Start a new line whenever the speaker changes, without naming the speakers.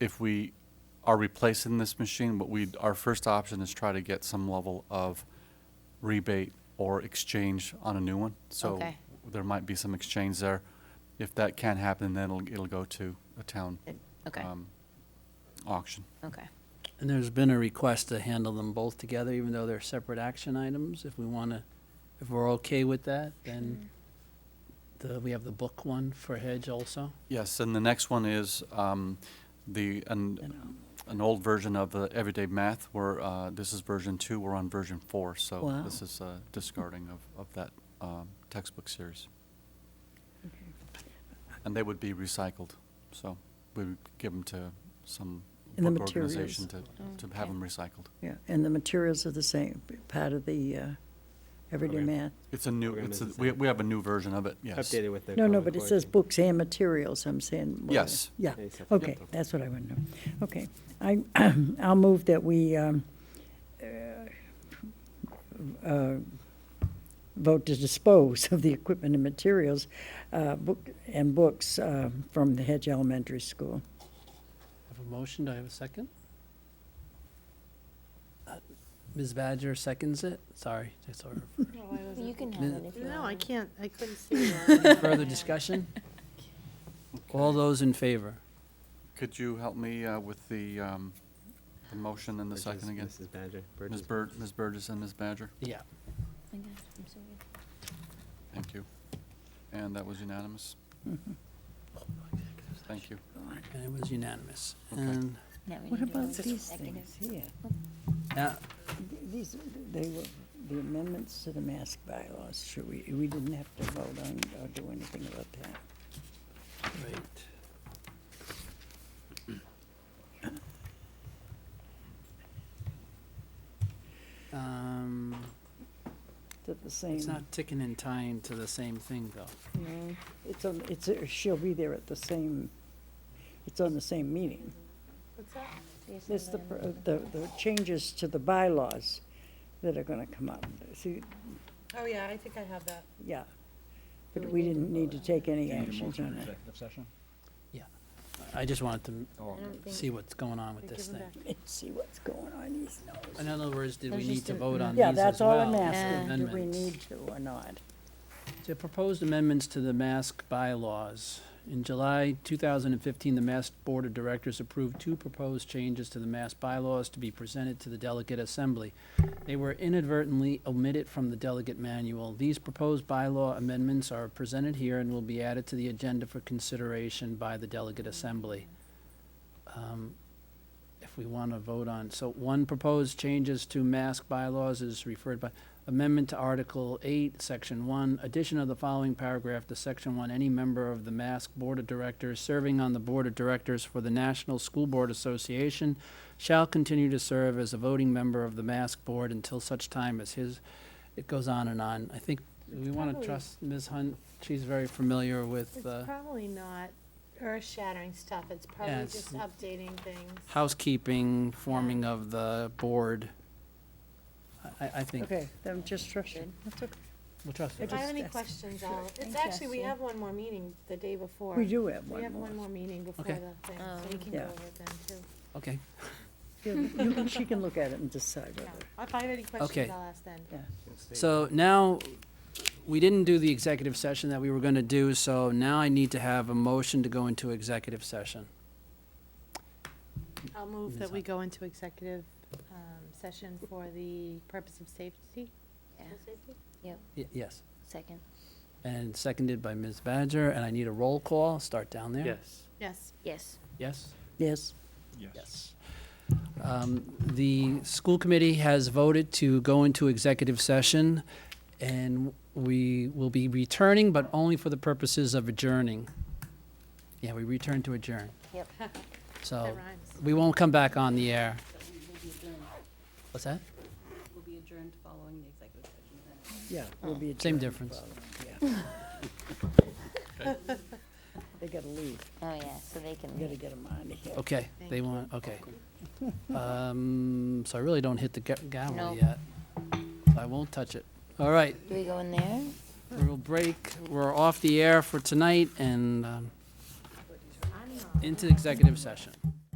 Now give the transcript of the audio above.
if we are replacing this machine, what we, our first option is try to get some level of rebate or exchange on a new one. So
Okay.
there might be some exchange there. If that can't happen, then it'll, it'll go to a town
Okay,
um, auction.
okay.
And there's been a request to handle them both together, even though they're separate action items. If we want to, if we're okay with that, then the, we have the book one for Hedge also.
Yes, and the next one is um, the, an, an old version of the Everyday Math, where uh, this is version two, we're on version four, so
Wow.
this is uh, discarding of, of that um, textbook series.
Mm-hmm.
And they would be recycled, so we would give them to some
And the
book organization to,
materials.
to have
Okay.
them recycled.
Yeah, and the materials are the same, part of the uh, everyday
Okay.
math.
It's a new,
Program
it's,
is
a-
the
we,
same.
we have a new version of it, yes.
Updated with the.
No, no,
Common
but it
Core
says
thing.
books and materials, I'm saying. what-
Yes.
Yeah,
Yeah, it's up-
okay,
yep.
that's what I want to know. Okay, I, I'll move that we um, uh, uh, vote to dispose of the equipment and materials, uh, book, and books uh, from the Hedge Elementary School.
Have a motion, do I have a second? Uh, Ms. Badger seconds it, sorry, that's our,
You can have it if you want.
No, I can't, I couldn't see. why.
further discussion? All those in favor?
Could you help me uh, with the, um, the motion and the
Which
second
is
again?
Mrs. Badger.
Ms.
Burgess.
Bird, Ms. Burgess and Ms. Badger?
Yeah.
Oh my gosh, I'm so weird.
Thank you. And that was unanimous? Thank you.
And it was unanimous.
Okay.
And
Now we
What
need to
about
vote on
these
executive.
things here?
now,
These, they were, the amendments to the mask bylaws, sure, we, we didn't have to vote on or do anything about that.
right. Um,
They're the same.
it's not ticking and tying to the same thing, though.
No, It's on, it's, uh, she'll be there at the same, it's on the same meeting.
What's that?
Yes,
There's the,
I'm
pr-
gonna-
uh, the, the changes to the bylaws that are gonna come up. See,
Oh, yeah, I think I have that.
yeah. But we didn't need to take any actions on it.
executive session?
I just wanted to
I don't think-
see what's going on with
Give
this
them
thing.
back.
Let's see what's going on, he's
In other words, did we
There's
need
just
to
an
vote on these
Yeah,
as well?
that's all I'm
as
asking, do we
amendments?
need to or not?
The proposed amendments to the mask bylaws. In July 2015, the mask Board of Directors approved two proposed changes to the mask bylaws to be presented to the delegate assembly. They were inadvertently omitted from the delegate manual. These proposed bylaw amendments are presented here and will be added to the agenda for consideration by the delegate assembly. Um, If we want to vote on, so one proposed changes to mask bylaws is referred by, Amendment to Article 8, Section 1, addition of the following paragraph to Section 1, any member of the Mask Board of Directors serving on the Board of Directors for the National School Board Association shall continue to serve as a voting member of the Mask Board until such time as his, it goes on and on. I think we want to
Probably-
trust Ms. Hunt, she's very familiar with uh,
It's probably not earth-shattering stuff, it's
Yeah,
probably
it's-
just updating things.
housekeeping, forming of the board. I- I, I think,
Okay, I'm just rushing.
we'll trust her.
If I have any
Just-
questions, I'll, it's
Thank
actually, we
you.
have one more meeting the day before.
We do have
We
one
have one
more.
more meeting before
Okay.
the thing, so we
Um,
can go
Yeah.
over it then, too.
Okay,
Yeah, you can- She can look at it and decide
Yeah.
whether,
If I have any
Okay.
questions, I'll ask then.
yeah.
So now, we didn't do the executive session that we were going to do, so now I need to have a motion to go into executive session.
I'll move
Ms.
that we
Hunt.
go into executive um, session for the purpose of safety.
Yeah,
School safety?
Y- Yes.
second.
And seconded by Ms. Badger, and I need a roll call. Start down there.
Yes.
Yes.
Yes.
Yes?
Yes.
Yes. Um, The school committee has voted to go into executive session, and we will be returning, but only for the purposes of adjourning. Yeah, we return to adjourn.
Yep.
So Oh.
That rhymes.
we won't come back on the air. What's that?
will be adjourned following the executive session then.
Yeah, we'll be.
Oh. Same
adjourned.
difference.
They gotta leave.
Oh, yeah, so they can
We gotta
leave.
get them out of here.
Okay, they
Thank
want, okay. Um, so I really don't hit the ga- gavel
No.
yet. I won't touch it. All right,
Do we go in there?
we'll break, we're off the air for tonight and, um, into executive session.